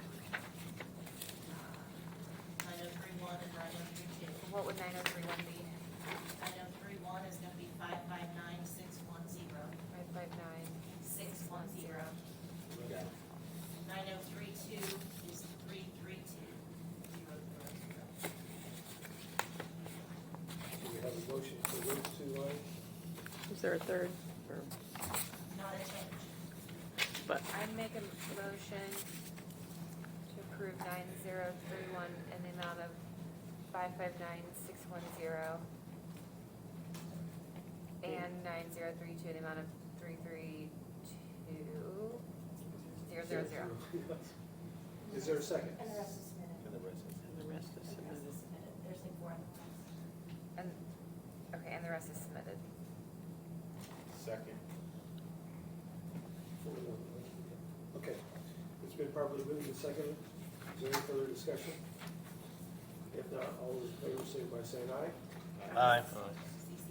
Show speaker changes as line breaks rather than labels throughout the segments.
oh
Is there a third? Or-
not a change.
But,
I'd make a motion to approve nine zero three one in the amount of five five nine six one zero. And nine zero three two in the amount of three three two zero zero zero.
Is there a second?
And the rest is submitted.
And the rest
and the rest is
is-
The rest
submitted.
is submitted. There's like four on the list.
And, okay, and the rest is submitted.
Second.
Okay, it's been properly moved and seconded. Is there any further discussion? If not, all those in favor say by saying aye.
Aye.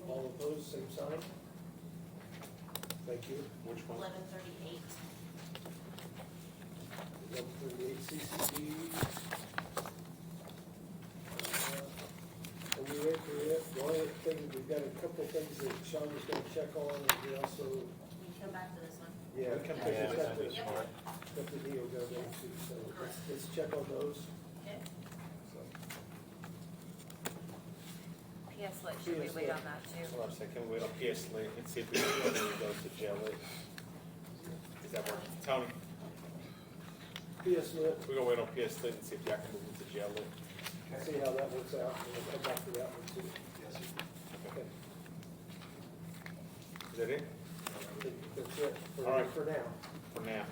All opposed, same sign. Thank you.
Which one?
Eleven thirty-eight.
Eleven thirty-eight CCD. And Uh, we went through it. The only thing, we've got a couple things that Sean was gonna check on, and we also,
We can come back to this one.
yeah.
We can
because
pick
it's
this
got
up
the-
this morning.
Got the deal going on too, so let's- let's check on those.
Okay.
So,
PS Lit, should we
PS
wait
Lit.
on that too?
That's what I'm saying, can we oh, wait on PS Lee and see if we can go to those to jail lit? Is that what, Tony,
PS Lit,
we're gonna wait on PS Lee and see if y'all can move it to jail lit?
see how that works out, and we'll come back to that one too. Okay,
Is that it?
I think That's it
All
for,
right.
for now.
For now,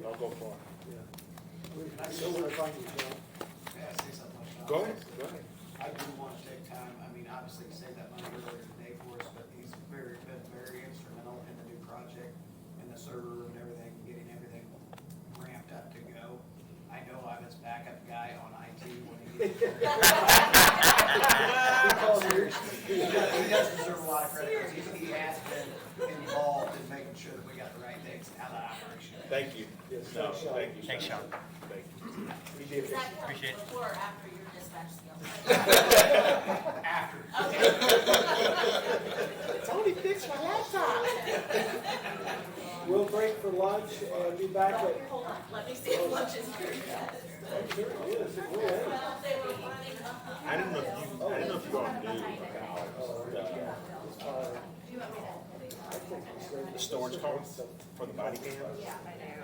don't go far.
Yeah. We, I know where to find you, John.
May I say something? about
Go
that?
ahead, go ahead.
I do want to take time, I mean, obviously you saved that money earlier today for us, but he's very, been very instrumental in the new project and the server and everything, getting everything ramped up to go. I know I'm his backup guy on IT when he gets.
We call you.
He does, he does deserve a lot of credit, because he, he has been involved in making sure that we got the right things out of the operation.
Thank you.
Yes,
No,
thanks, Sean.
thank you.
Thanks,
Sean. Thank you.
We did
Does
it.
that come
Appreciate it.
before or after your dispatch skills?
After.
Tony fixed my laptop. We'll break for lunch and be back at,
Hold on, let me see if lunch is pretty good.
I'm sure it is, it will.
Well, they were running uh-huh. up.
I didn't know if you, I didn't know if you all knew
Oh,
about
Uh, I think it's great.
the storage cards for the body cams.
I know.